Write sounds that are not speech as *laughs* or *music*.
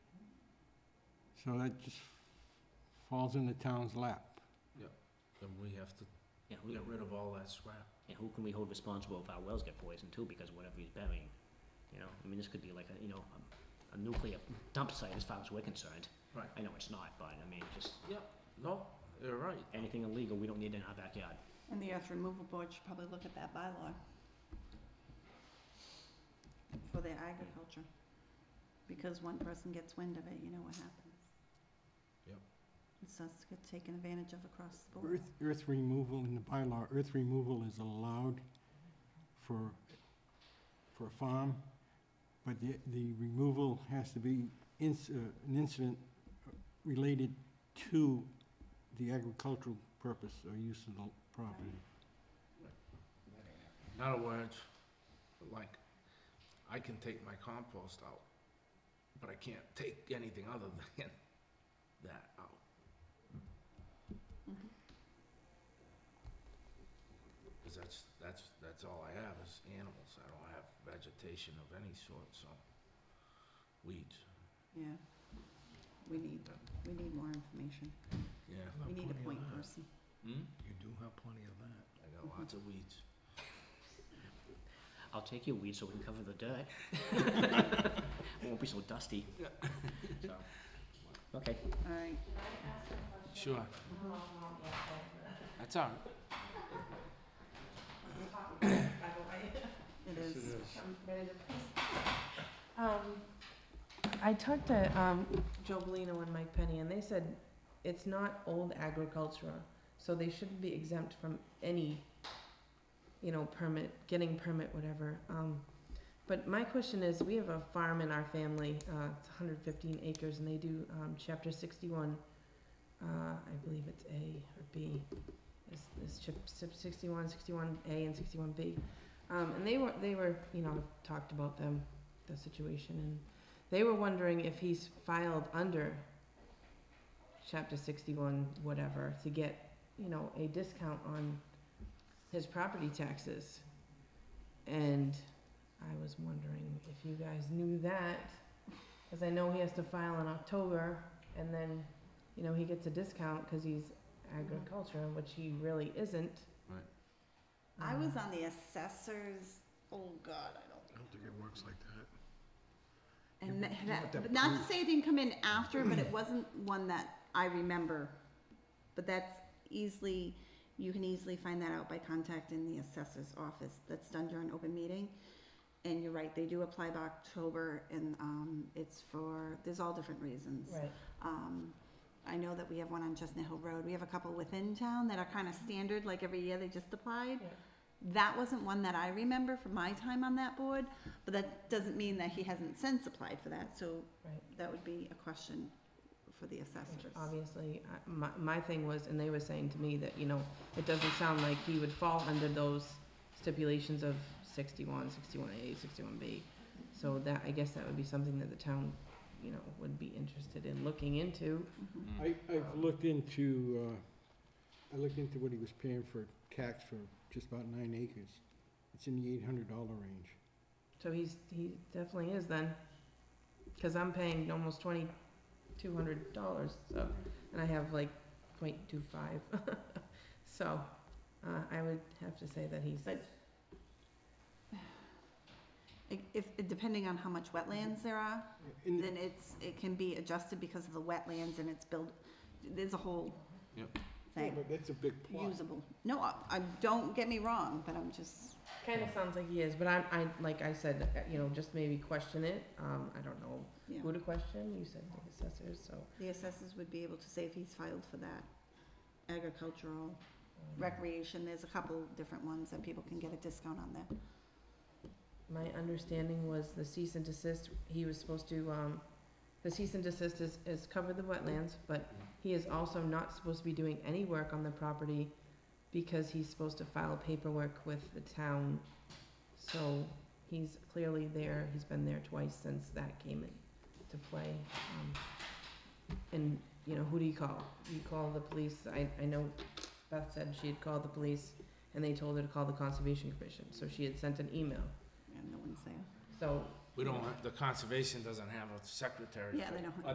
So that just falls in the town's lap. Then we have to Yeah, who, get rid of all that scrap. yeah, who can we hold responsible if our wells get poisoned too, because of whatever he's burying? You know, I mean, this could be like a, you know, a, a nuclear dump site as far as we're concerned. Right. I know it's not, but I mean, just No, you're right. anything illegal, we don't need in our backyard. And the earth removal board should probably look at that bylaw for their agriculture. Because one person gets wind of it, you know what happens. Yep. And so it's get taken advantage of across the board. Earth, earth removal in the bylaw, earth removal is allowed for, for a farm, but the, the removal has to be inc- uh, an incident related to the agricultural purpose or use of the property. In other words, like, I can take my compost out, but I can't take anything other *laughs* than that out. Mhm. Cause that's, that's, that's all I have is animals. I don't have vegetation of any sort, so weeds, Yeah. We need, we need more information. yeah. We need a point person. Hmm? You do have plenty of that. I got lots of weeds. I'll take your weed so we can cover the dirt. *laughs* It won't be so dusty. So, okay. All right. Sure. That's all right. It is. Um, I talked to, um, Joe Bolino and Mike Penny, and they said it's not old agriculture, so they shouldn't be exempt from any, you know, permit, getting permit, whatever. Um, but my question is, we have a farm in our family, uh, it's hundred fifteen acres, and they do, um, chapter sixty-one, uh, I believe it's A or B, is, is chip, sixty-one, sixty-one A and sixty-one B. Um, and they were, they were, you know, talked about them the situation and they were wondering if he's filed under chapter 61 whatever to get you know a discount on his property taxes and i was wondering if you guys knew that because i know he has to file in october and then you know he gets a discount because he's agriculture which he really isn't Right. I was Uh, on the assessors, oh God, I don't I don't think it works like that. And You- tha- you that, have to but not to prove- say it didn't come in after, but *clears throat* it wasn't one that I remember. But that's easily, you can easily find that out by contacting the assessor's office. That's done during open meeting. And you're right, they do apply by October and, um, it's for, there's all different reasons. right Um, I know that we have one on Chestnut Hill Road. We have a couple within town that are kind of standard, like every year they just applied. Yeah. That wasn't one that I remember from my time on that board, but that doesn't mean that he hasn't since applied for that, so right that would be a question for the Which assessors. Obviously, I- my, my thing was, and they were saying to me that, you know, it doesn't sound like he would fall under those stipulations of sixty-one, sixty-one A, sixty-one B. So that, I guess that would be something that the town, you know, would be interested in looking into. Mhm. I, I've looked into, uh, I looked into what he was paying for tax for just about nine acres. It's in the eight hundred dollar range. So he's, he definitely is then, cause I'm paying almost twenty-two hundred dollars, so, and I have like point two five. *laughs* So, uh, I would have to say that he's. But- I- If, depending on how much wetlands there are, In the- then it's, it can be adjusted because of the wetlands and it's built, there's a whole Yep. Yeah, thing, but that's a big plot. usable. No, I, I, don't get me wrong, but I'm just. Kind of sounds like he is, but I'm, I, like I said, uh, you know, just maybe question it, um, I don't know Yeah. who to question, you said the assessors, so. The assessors would be able to say if he's filed for that. Agricultural, recreation, there's a couple different ones that people can get a discount on there. My understanding was the cease and desist, he was supposed to, um, the cease and desist is, is cover the wetlands, but he is also not supposed to be doing any work on the property because he's supposed to file paperwork with the town, so he's clearly there, he's been there twice since that came into play. um, And, you know, who do you call? You call the police, I, I know Beth said she had called the police and they told her to call the Conservation Commission, so she had sent an email. And no one's there. So We don't, have- the conservation doesn't have a secretary. Yeah, for- they don't have-